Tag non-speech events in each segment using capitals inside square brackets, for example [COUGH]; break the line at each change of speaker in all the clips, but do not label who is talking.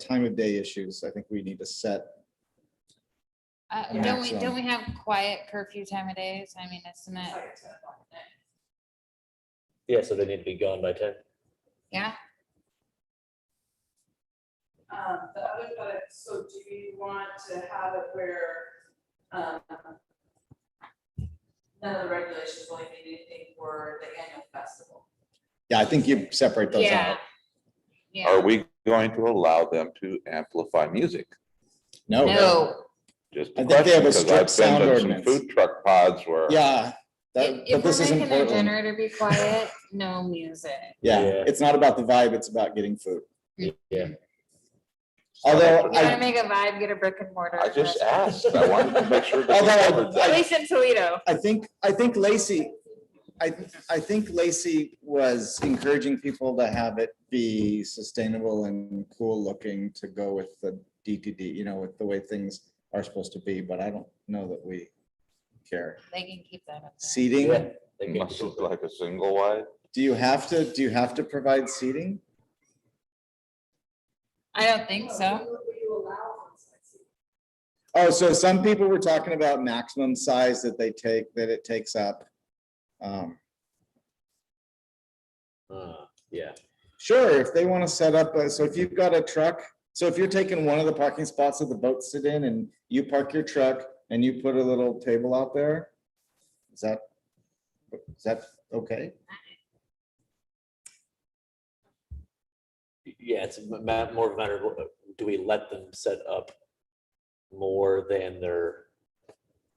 time of day issues, I think we need to set.
Uh,
Yeah,
don't we,
so-
don't we have quiet curfew time of days? I mean, isn't it,
Yeah, so they need to be gone by ten.
yeah?
Um, the other, but, so do you want to have it where, um, none of the regulations will mean anything for the annual festival?
Yeah, I think you separate those
Yeah.
out.
Are
Yeah,
we going to allow them to amplify music?
Oh, No.
no,
Just
I
a
think they have a
question, because
strict
I've
sound
been to some
ordinance.
food truck pods where
Yeah, that,
if,
but
if
this
we're
isn't
making our
Portland.
generator be quiet, no music.
Yeah,
Yeah.
it's not about the vibe, it's about getting food.
Yeah.
Although
You wanna
I,
make a vibe, get a brick and mortar.
I just
restaurant.
asked, I wanted to
[LAUGHS]
make sure that we
Although
covered
At
that.
least in Toledo.
I think, I think Lacey, I, I think Lacey was encouraging people to have it be sustainable and cool looking to go with the DTD, you know, with the way things are supposed to be, but I don't know that we care.
They can keep that up. there.
Seating,
Yeah, they can
Must
do
look like a single wide.
do you have to, do you have to provide seating?
I don't think so.
Will you allow on-site seating?
Oh, so some people were talking about maximum size that they take, that it takes up. Um,
that. Uh, Yeah,
Sure, if they want to set up, a- so if you've got a truck, so if you're taking one of the parking spots that the boats sit in and you park your truck and you put a little table out there, is that, is that okay?
yeah, it's a ma- more of a matter of, uh, do we let them set up more than their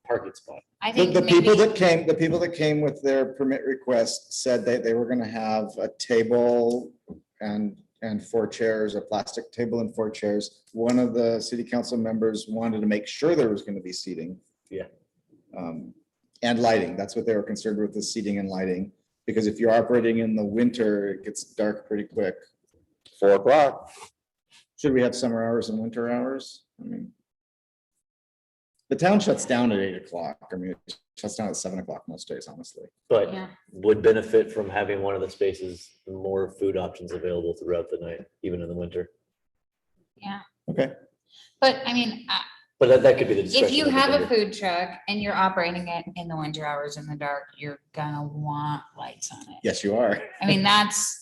parking spot?
I
The,
think
the people
maybe-
that came, the people that came with their permit request said that they were gonna have a table and, and four chairs, a plastic table and four chairs. One of the city council members wanted to make sure there was gonna be seating.
Yeah.
Um, and lighting, that's what they were concerned with, the seating and lighting, because if you're operating in the winter, it gets dark pretty quick.
Four o'clock,
Should we have summer hours and winter hours? I mean. The town shuts down at eight o'clock. I mean, it shuts down at seven o'clock most days, honestly.
But
Yeah,
would benefit from having one of the spaces, more food options available throughout the night, even in the winter.
yeah.
Okay.
But I mean, I-
But that, that could be the discretion.
if you
of the
have a
vendor.
food truck and you're operating it in the winter hours in the dark, you're gonna want lights on it.
Yes, you are.
I mean, that's,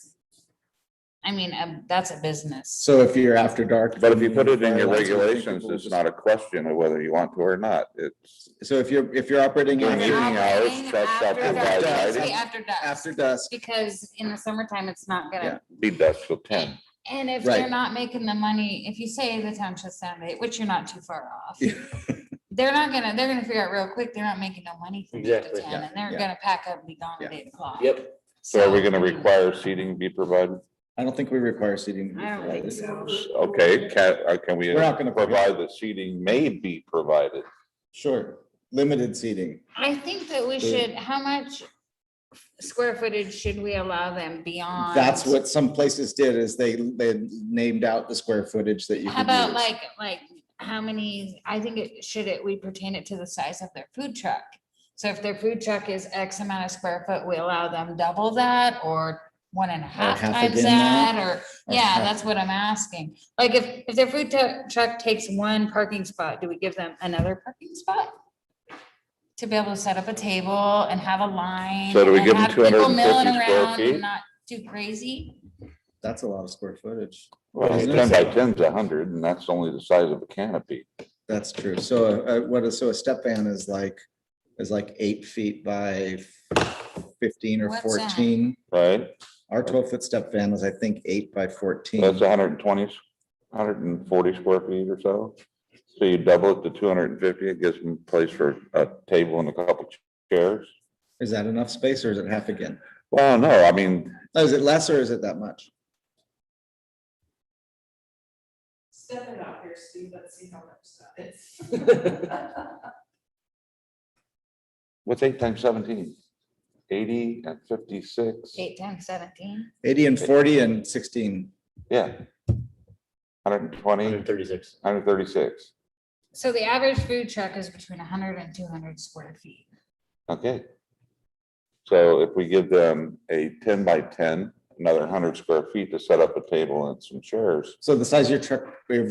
I mean, um, that's a business.
So if you're after dark.
but if you put it in your
then-
regulations, it's not a question of whether you want to or not. It's
So if you're, if you're operating on-
During evening hours,
Operating
trucks shall
after
provide
dusk,
lighting.
it's gonna be After dusk,
after dusk,
because in the summertime, it's not gonna,
be dusk till ten.
and if
Right.
they're not making the money, if you say the town shuts down, at eight, which you're not too far off.
Yeah.
[LAUGHS] They're not gonna, they're gonna figure out real quick, they're not making no money from eight to
Exactly.
ten, and they're
yeah.
gonna pack up and be gone at
Yeah.
eight o'clock.
Yep,
So are we gonna require seating be provided?
I don't think we require seating. to be
I don't think
provided.
so.
Okay, can, uh, can we
We're not gonna
provide that seating may be provided?
Sure, limited seating.
I think that we
So-
should, how much square footage should we allow them beyond?
That's what some places did is they, they named out the square footage that you
How
could
about
use.
like, like, how many, I think it, should it, we pertain it to the size of their food truck? So if their food truck is X amount of square foot, we allow them double that or one and a half
half
times
again that,
that or,
or
yeah,
half-
that's what I'm asking. Like if, if their food tu- truck takes one parking spot, do we give them another parking spot? To be able to set up a table and have a line.
So do we
and
give them
have people
250
milling
square
around and
feet?
Not too crazy.
That's a lot of square footage.
Well,
Isn't
ten
it?
by ten's a hundred, and that's only the size of a canopy.
That's true. So uh, what is, so a step van is like, is like eight feet by fifteen or
What's that?
fourteen.
Right,
Our twelve foot step van is, I think, eight by fourteen.
that's hundred and twenty, hundred and forty square feet or so. So you double it to two hundred and fifty, it gives them place for a table and a couple chairs.
Is that enough space or is it half again?
Well, no, I mean,
Oh, Is it less or is it that much?
Step it out here, Steve, let's see how much that is. [LAUGHS]
what's eight times seventeen? Eighty and fifty-six,
Eight times seventeen.
Eighty and forty and sixteen.
yeah. Hundred and twenty,
hundred and thirty-six.
hundred and thirty-six,
So the average food truck is between 100 and 200 square feet.
okay. So if we give them a ten by ten another hundred square feet to set up a table and some chairs.
So the size of your truck, your vehicle